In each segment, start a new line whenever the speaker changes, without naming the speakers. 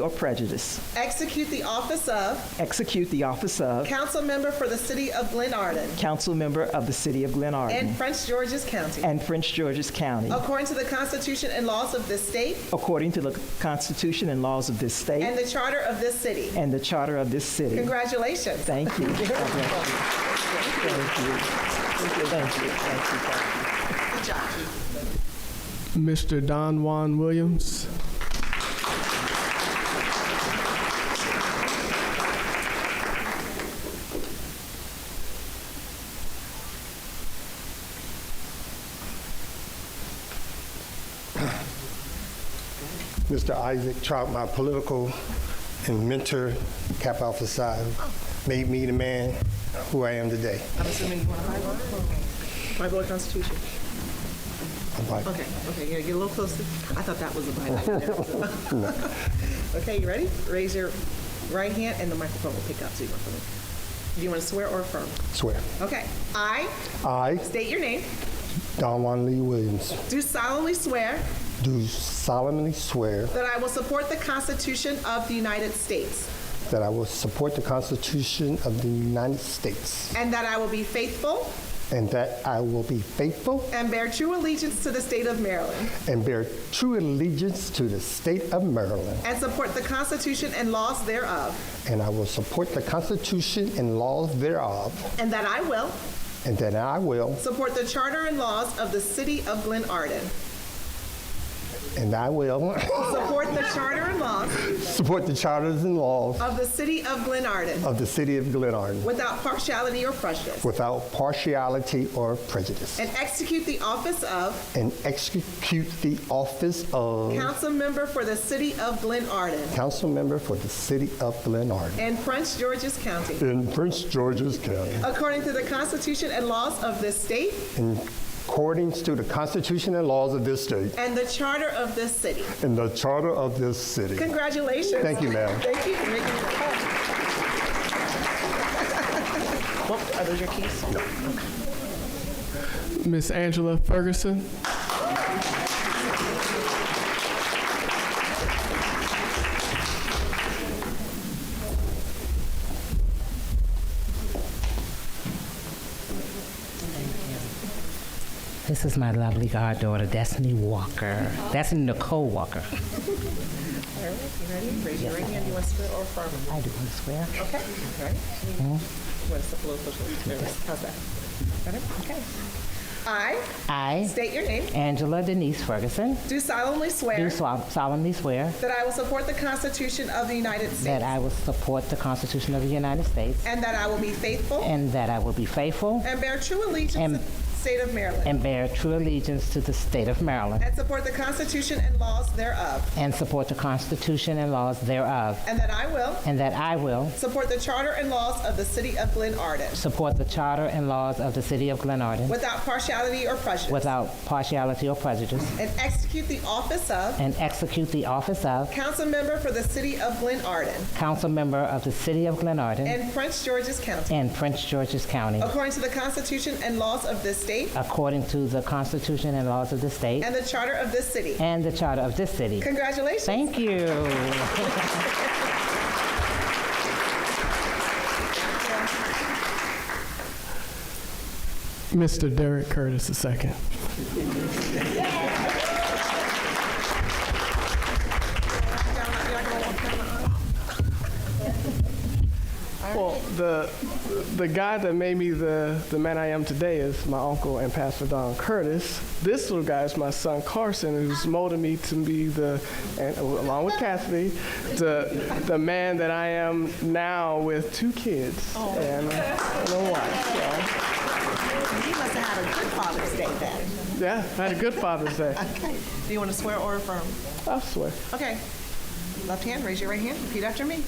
or prejudice.
Execute the office of
Execute the office of
council member for the city of Glen Arden
council member of the city of Glen
and
Arden
Prince George's County,
and Prince George's County,
according to the Constitution and laws of this state
according to the Constitution and laws of this state
and the charter of this city.
and the charter of this city.
Congratulations.
Thank you. God bless you. Thank you. Thank you. Thank you. Thank you.
Good job.
Mr. Don Juan Williams.
Mr. Isaac Trout, my political and mentor, Cap Alpha Psi, made me the man who I am today.
I'm assuming you want to buy one? My boy Constitution.
I'm like,
Okay, okay, yeah, get a little closer. I thought that was a Bible. Okay, you ready? Raise your right hand and the microphone will pick up, so you want to, do you want to swear or affirm?
Swear.
Okay, I
I,
state your name,
Don Juan Lee Williams,
do solemnly swear
do solemnly swear
that I will support the Constitution of the United States
that I will support the Constitution of the United States
and that I will be faithful
and that I will be faithful
and bear true allegiance to the state of Maryland
and bear true allegiance to the state of Maryland,
and support the Constitution and laws thereof,
and I will support the Constitution and laws thereof,
and that I will
and that I will,
support the charter and laws of the city of Glen Arden,
and I will
support the charter and laws
support the charters and laws
of the city of Glen Arden
of the city of Glen Arden
without partiality or prejudice,
without partiality or prejudice
and execute the office of
and execute the office of
council member for the city of Glen Arden
council member for the city of Glen Arden
and Prince George's County,
in Prince George's County
according to the Constitution and laws of this state
in accordance to the Constitution and laws of this state
and the charter of this city.
and the charter of this city.
Congratulations.
Thank you, ma'am.
Thank you for making it possible. Well, Oh, are those your keys?
Miss Angela Ferguson.
This is my lovely goddaughter, Destiny Walker. Destiny Nicole Walker.
All right, you ready? Raise your right hand. You want to swear or affirm?
I do want to swear.
Okay, all right. You want to step a little closer to the camera? How's that? Ready? Okay. I
I,
state your name,
Angela Denise Ferguson,
do solemnly
do
swear
sol- solemnly swear
that I will support the Constitution of the United
that
States
I will support the Constitution of the United States
and that I will be faithful
and that I will be faithful
and bear true allegiance to
And-
the state of Maryland
and bear true allegiance to the state of Maryland
and support the Constitution and laws thereof
and support the Constitution and laws thereof,
and that I will
and that I will
support the charter and laws of the city of Glen Arden
support the charter and laws of the city of Glen Arden
without partiality or prejudice
without partiality or prejudice
and execute the office of
and execute the office of
council member for the city of Glen Arden
council member of the city of Glen Arden
and Prince George's County
in Prince George's County,
according to the Constitution and laws of this state
according to the Constitution and laws of the state
and the charter of this city.
and the charter of this city.
Congratulations.
Thank you.
Mr. Derek Curtis II. Well, the, the guy that made me the, the man I am today is my uncle and Pastor Don Curtis. This little guy is my son Carson, who's molded me to be the, and along with Cassidy, the, the man that I am now with two kids and, and a wife. so.
You must have had a good Father's Day then.
Yeah, I had a good Father's Day.
Okay. Do you want to swear or affirm?
I swear.
Okay. Left hand, raise your right hand, repeat after me.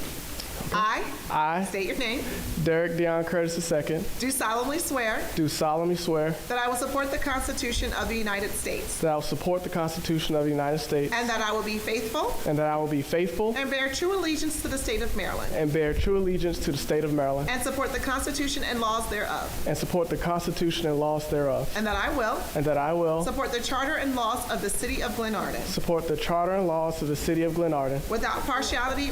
I
I,
state your name.
Derek Deion Curtis II,
Do solemnly swear
do solemnly swear
that I will support the Constitution of the United States
that I will support the Constitution of the United States
and that I will be faithful
and that I will be faithful
and bear true allegiance to the state of Maryland
and bear true allegiance to the state of Maryland
and support the Constitution and laws thereof
and support the Constitution and laws thereof,
and that I will
and that I will
support the charter and laws of the city of Glenarden
support the charter and laws of the city of Glenarden
without partiality